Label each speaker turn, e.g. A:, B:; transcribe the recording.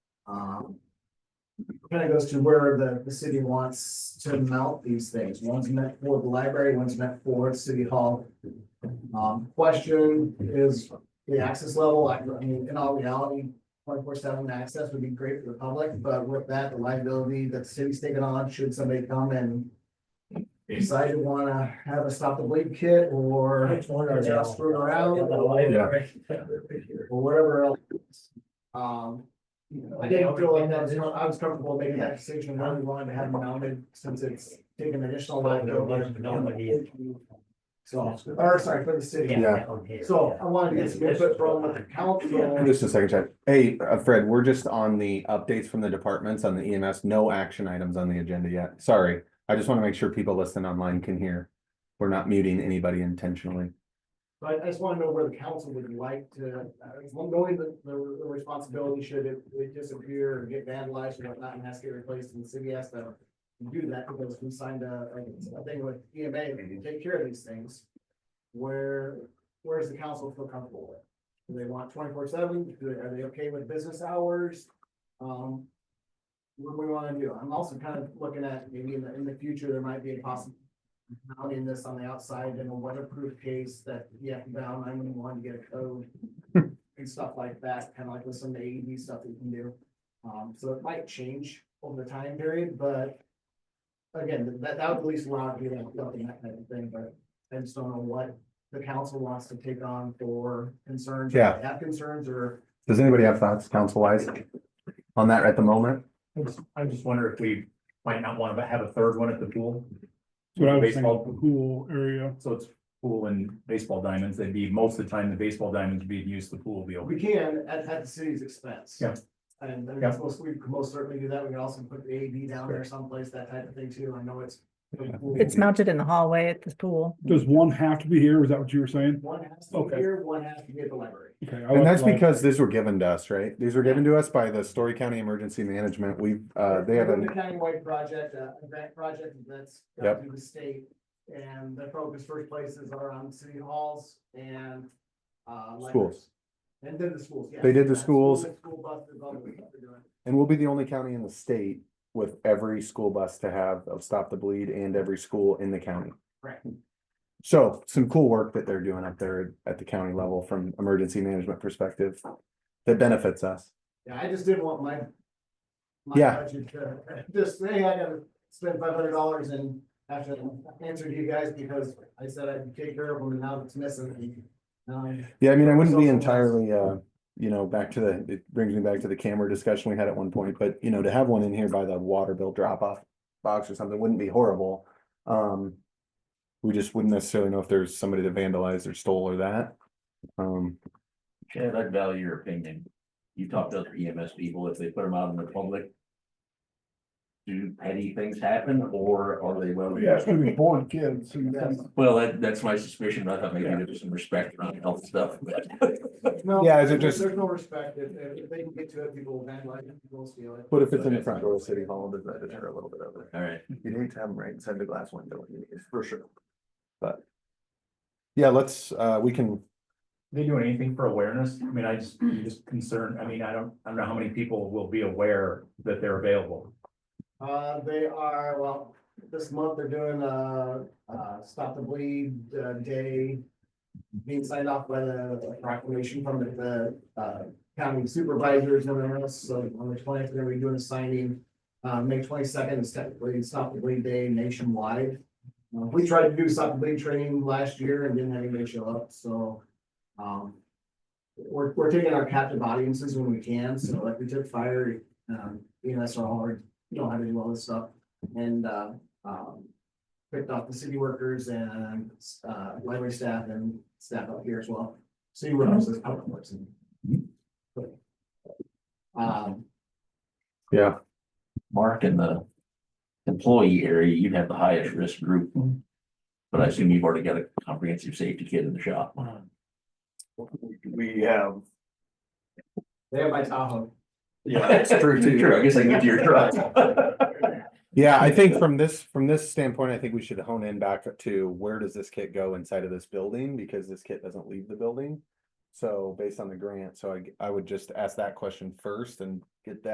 A: Um. Kind of goes to where the, the city wants to mount these things. One's meant for the library, one's meant for city hall. Um, question is the access level. I I mean, in all reality, twenty-four seven access would be great for the public, but with that, the liability that the city's taking on, should somebody come and decide to wanna have a stop the bleed kit or just screw around or or whatever else. Um, I didn't feel like that, was- I was comfortable making that decision, I really wanted to have them mounted since it's taking additional liability. So, or sorry, for the city. So I wanted to get some input from the council.
B: Just a second, Chad. Hey, uh, Fred, we're just on the updates from the departments on the EMS, no action items on the agenda yet. Sorry. I just want to make sure people listening online can hear. We're not muting anybody intentionally.
A: But I just want to know where the council would like to, uh, if one going the, the the responsibility should it, it disappear or get vandalized or whatnot and has to get replaced and the city has to do that because we signed a, a thing with EMA to take care of these things. Where, where does the council feel comfortable with? Do they want twenty-four seven? Are they okay with business hours? Um, what do we want to do? I'm also kind of looking at maybe in the, in the future, there might be a possible mounting this on the outside in a weatherproof case that you have to down nine one one to get a code. And stuff like that, kind of like with some AED stuff that you can do. Um, so it might change over the time period, but. Again, that, that would at least allow you to do that kind of thing, but I just don't know what the council wants to take on for concerns. or
B: Yeah.
A: Have concerns or,
B: Does anybody have thoughts council wise on that at the moment?
C: I just, I just wonder if we might not want to have a third one at the pool,
D: What I was
C: Baseball.
D: thinking, pool area.
C: so it's pool and baseball diamonds, they'd be, most of the time, the baseball diamonds would be used, the pool will be open.
A: we can at, at the city's expense.
C: Yeah.
A: And I mean,
C: Yeah.
A: that's most, we could most certainly do that. We could also put the AED down there someplace, that type of thing too. I know it's.
E: It's mounted in the hallway at this pool.
D: Does one have to be here? Is that what you were saying?
A: One has to be
D: Okay.
A: here, one has to be at the library.
D: Okay. I
B: And
D: like
B: that's
D: that.
B: because these were given to us, right? These were given to us by the Story County Emergency Management. We, uh, they have
A: The
B: a,
A: countywide project, uh, a grant project that's
B: Yep.
A: got through the state. And the focus first places are on city halls and, uh. libraries.
B: Schools.
A: And then the schools, yeah.
B: They did the schools.
A: School buses, all the stuff they're doing.
B: and we'll be the only county in the state with every school bus to have of Stop the Bleed and every school in the county.
A: Right.
B: So some cool work that they're doing up there at the county level from emergency management perspective that benefits us.
A: Yeah, I just didn't want my. my
B: Yeah.
A: budget to Just, hey, I gotta spend five hundred dollars and have to answer to you guys because I said I'd take care of them and now it's missing. Um,
B: Yeah, I mean, I wouldn't be
A: Social
B: entirely, uh, you know, back to the, it brings me back to the camera discussion we had at one point, but you know, to have one in here by the water bill drop off box or something wouldn't be horrible. Um, we just wouldn't necessarily know if there's somebody that vandalized or stole or that. Um,
F: Chad, I'd value your opinion. You talked to other EMS people, if they put them out in the public. Do petty things happen or are they well?
D: Yeah, it's gonna be born kids. and-
A: Yes.
F: Well, that, that's my suspicion. I thought maybe there was some respect around health stuff, but.
A: no,
B: Yeah, is it
A: there's-
B: just-
A: There's no respect. If, if if they can get to it, people will vandalize it, people will steal it.
B: but if it's in the front door of City Hall, does that deter a little bit of it?
F: All right.
B: You'd hate to have them right inside the glass window, for sure. But. Yeah, let's, uh, we can,
C: They doing anything for awareness? I mean, I just, I'm just concerned, I mean, I don't, I don't know how many people will be aware that they're available.
A: Uh, they are, well, this month they're doing a, uh, stop the bleed, uh, day. Being signed off by the proclamation from the, the, uh, county supervisors and everyone else, so on the twentieth, they're gonna be doing a signing. Uh, May twenty-second is technically stop the bleed day nationwide. Uh, We tried to do stop the bleed training last year and didn't have anybody show up, so, um. We're, we're taking our captive audiences when we can, so like we took fire, um, you know, that's our hard you know how to do all this stuff. And, uh, um, picked off the city workers and, uh, library staff and staff up here as well. City workers is how it works. Um,
B: yeah,
F: Mark, in the employee area, you'd have the highest risk group. But I assume you've already got a comprehensive safety kit in the shop.
G: We have,
A: they have my Tahoe.
G: yeah,
F: That's true too. True, I guess I can get to your truck.
B: yeah, I think from this, from this standpoint, I think we should hone in back to where does this kit go inside of this building? Because this kit doesn't leave the building. So based on the grant, so I, I would just ask that question first and get that